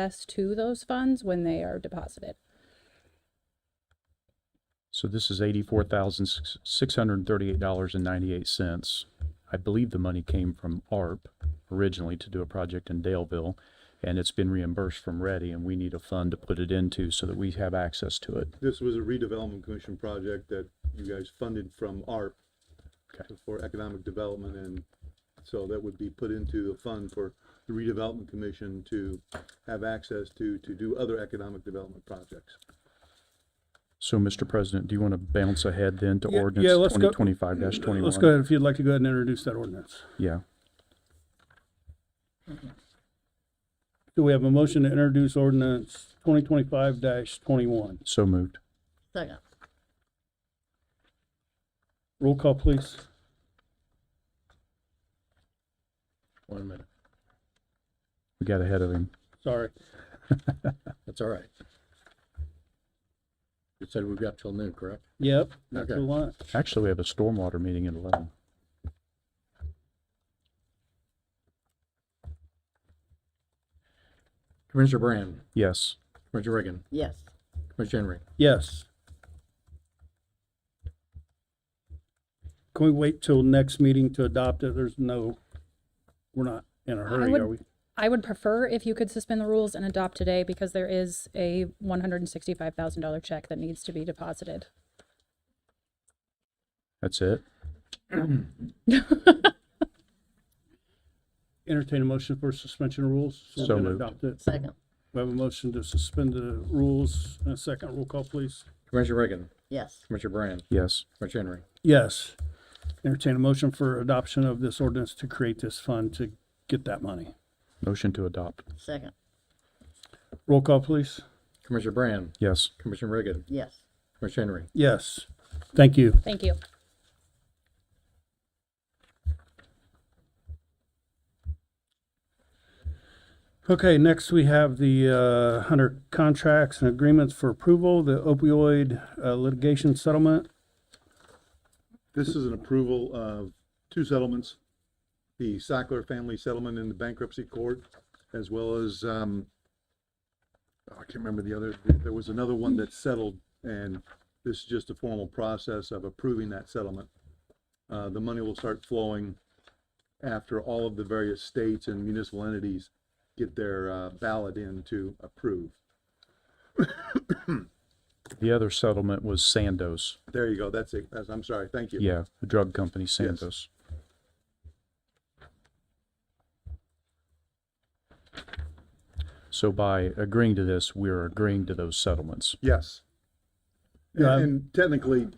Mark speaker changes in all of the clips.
Speaker 1: access to those funds when they are deposited.
Speaker 2: So this is eighty-four thousand, six hundred and thirty-eight dollars and ninety-eight cents. I believe the money came from ARP originally to do a project in Daleville, and it's been reimbursed from Ready, and we need a fund to put it into so that we have access to it.
Speaker 3: This was a redevelopment commission project that you guys funded from ARP
Speaker 2: Okay.
Speaker 3: for economic development, and so that would be put into the fund for the redevelopment commission to have access to, to do other economic development projects.
Speaker 2: So, Mr. President, do you want to bounce ahead then to
Speaker 4: Yeah- yeah,
Speaker 2: ordinance
Speaker 4: let's go-
Speaker 2: twenty twenty-five twenty-one?
Speaker 4: Let's go ahead, if you'd like to go ahead and introduce that ordinance.
Speaker 2: Yeah,
Speaker 4: Do we have a motion to introduce ordinance twenty twenty-five twenty-one?
Speaker 2: so moved.
Speaker 5: Second.
Speaker 4: Roll call, please.
Speaker 6: One minute.
Speaker 2: We got ahead of him.
Speaker 4: Sorry.
Speaker 6: That's all right. You said we've got till noon, correct?
Speaker 4: Yep, not
Speaker 6: Okay.
Speaker 4: too long.
Speaker 2: Actually, we have a stormwater meeting at eleven.
Speaker 6: Commissioner Brand,
Speaker 2: Yes,
Speaker 6: Commissioner Reagan,
Speaker 5: Yes.
Speaker 6: Commissioner Henry.
Speaker 4: Yes. Can we wait till next meeting to adopt it? There's no, we're not in a
Speaker 1: I
Speaker 4: hurry,
Speaker 1: would-
Speaker 4: are we?
Speaker 1: I would prefer if you could suspend the rules and adopt today because there is a one hundred and sixty-five thousand dollar check that needs to be deposited.
Speaker 2: that's it.
Speaker 4: Entertain a motion for suspension of rules. we're
Speaker 2: So
Speaker 4: gonna
Speaker 2: moved.
Speaker 4: adopt it.
Speaker 5: Second.
Speaker 4: We have a motion to suspend the rules. A second roll call, please.
Speaker 6: Commissioner Reagan,
Speaker 5: Yes.
Speaker 6: Commissioner Brand,
Speaker 2: Yes,
Speaker 6: Commissioner Henry.
Speaker 4: Yes. Entertain a motion for adoption of this ordinance to create this fund to get that money.
Speaker 2: motion to adopt.
Speaker 5: Second.
Speaker 4: Roll call, please.
Speaker 6: Commissioner Brand,
Speaker 2: Yes,
Speaker 6: Commissioner Reagan,
Speaker 5: Yes.
Speaker 6: Commissioner Henry.
Speaker 4: Yes. Thank you.
Speaker 1: Thank you.
Speaker 4: Okay, next we have the uh, Hunter contracts and agreements for approval, the opioid uh, litigation settlement.
Speaker 3: This is an approval of two settlements, the Sackler family settlement in the bankruptcy court, as well as, um, oh, I can't remember the other, there was another one that settled, and this is just a formal process of approving that settlement. Uh, the money will start flowing after all of the various states and municipal entities get their, uh, ballot in to approve.
Speaker 2: the other settlement was Sandoz.
Speaker 3: There you go, that's it, that's, I'm sorry, thank you.
Speaker 2: Yeah, the drug company Sandoz. So by agreeing to this, we're agreeing to those settlements.
Speaker 3: Yes. And-
Speaker 4: Yeah, I'm-
Speaker 3: And technically,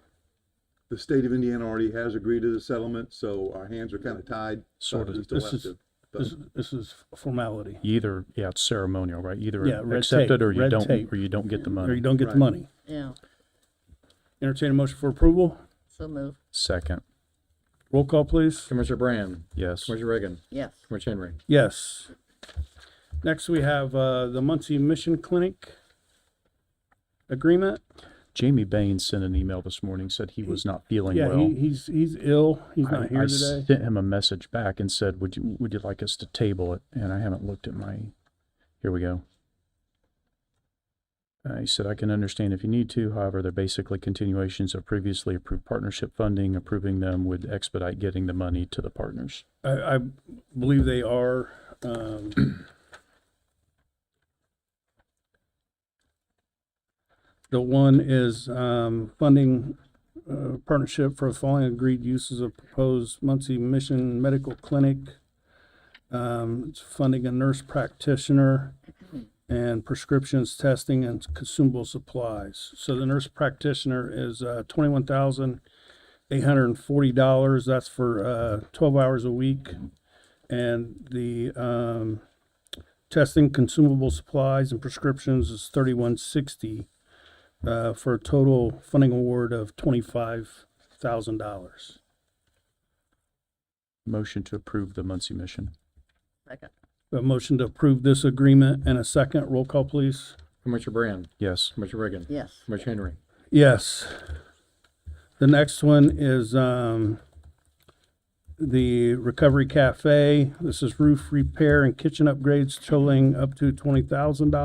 Speaker 3: the state of Indiana already has agreed to the settlement, so our hands are kind of tied.
Speaker 2: Sort
Speaker 3: but
Speaker 2: of.
Speaker 3: we still
Speaker 4: This
Speaker 3: have
Speaker 4: is-
Speaker 3: to- but-
Speaker 4: This, this is formality,
Speaker 2: You Either, yeah, it's ceremonial, right? Either
Speaker 4: Yeah, red
Speaker 2: accept
Speaker 4: tape,
Speaker 2: it or you
Speaker 4: red
Speaker 2: don't,
Speaker 4: tape.
Speaker 2: or you don't get the
Speaker 4: or you
Speaker 2: money.
Speaker 4: don't get the
Speaker 3: Right.
Speaker 4: money.
Speaker 5: Yeah.
Speaker 4: Entertain a motion for approval.
Speaker 5: So move.
Speaker 2: Second,
Speaker 4: Roll call, please.
Speaker 6: Commissioner Brand,
Speaker 2: yes.
Speaker 6: Commissioner Reagan,
Speaker 5: Yes.
Speaker 6: Commissioner Henry.
Speaker 4: Yes. Next, we have uh, the Muncie Mission Clinic agreement.
Speaker 2: Jamie Bain sent an email this morning, said he was not feeling
Speaker 4: Yeah, he,
Speaker 2: well.
Speaker 4: he's, he's ill. He's
Speaker 2: I-
Speaker 4: not here
Speaker 2: I
Speaker 4: today.
Speaker 2: sent him a message back and said, would you, would you like us to table it? And I haven't looked at my, here we go. Uh, he said, I can understand if you need to, however, they're basically continuations of previously approved partnership funding. Approving them would expedite getting the money to the partners.
Speaker 4: I, I believe they are, um, the one is, um, funding, uh, partnership for the following agreed uses of proposed Muncie Mission Medical Clinic. Um, it's funding a nurse practitioner and prescriptions, testing and consumable supplies. So the nurse practitioner is, uh, twenty-one thousand eight hundred and forty dollars. That's for uh, twelve hours a week, and the um, testing, consumable supplies, and prescriptions is thirty-one sixty uh, for a total funding award of twenty-five thousand dollars.
Speaker 2: Motion to approve the Muncie mission.
Speaker 5: Second.
Speaker 4: A motion to approve this agreement and a second roll call, please.
Speaker 6: Commissioner Brand,
Speaker 2: Yes.
Speaker 6: Commissioner Reagan,
Speaker 5: Yes.
Speaker 6: Commissioner Henry.
Speaker 4: Yes. The next one is um, the Recovery Cafe. This is roof repair and kitchen upgrades totaling up to twenty thousand dollars.